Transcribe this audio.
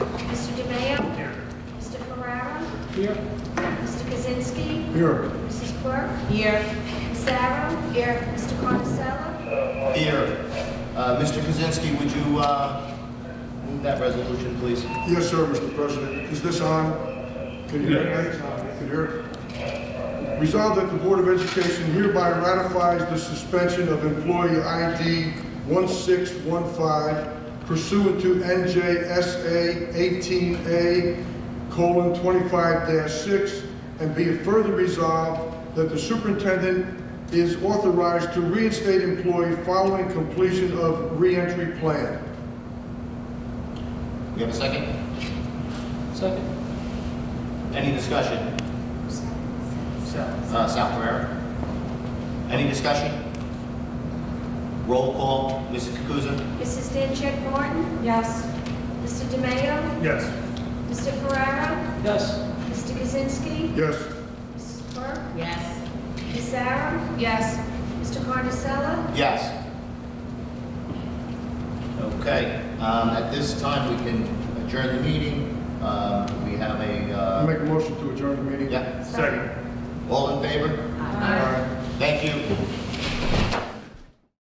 Here. Mr. Kaczynski. Here. Mrs. Quirk. Here. Ms. Sarah. Here. Mr. Conicella. Here. Uh, Mr. Kaczynski, would you uh, move that resolution, please? Yes, sir, Mr. President. Is this on? Can you hear it? Can you hear it? Resolved that the Board of Education hereby ratifies the suspension of employee ID 1615 pursuant to NJSA 18A colon 25-6, and be it further resolved that the superintendent is authorized to reinstate employee following completion of reentry plan. We have a second? Second. Any discussion? Uh, Sal Ferrera? Any discussion? Roll call, Mrs. Kukuza? Mrs. Dancheck Martin. Yes. Mr. DeMayo. Yes. Mr. Ferrara. Yes. Mr. Kaczynski. Yes. Mrs. Quirk. Yes. Ms. Sarah. Yes. Mr. Conicella. Yes. Okay, um, at this time, we can adjourn the meeting. Um, We have a, I uh, Make a motion to adjourn the meeting. yeah, Second. all in favor? Thank you.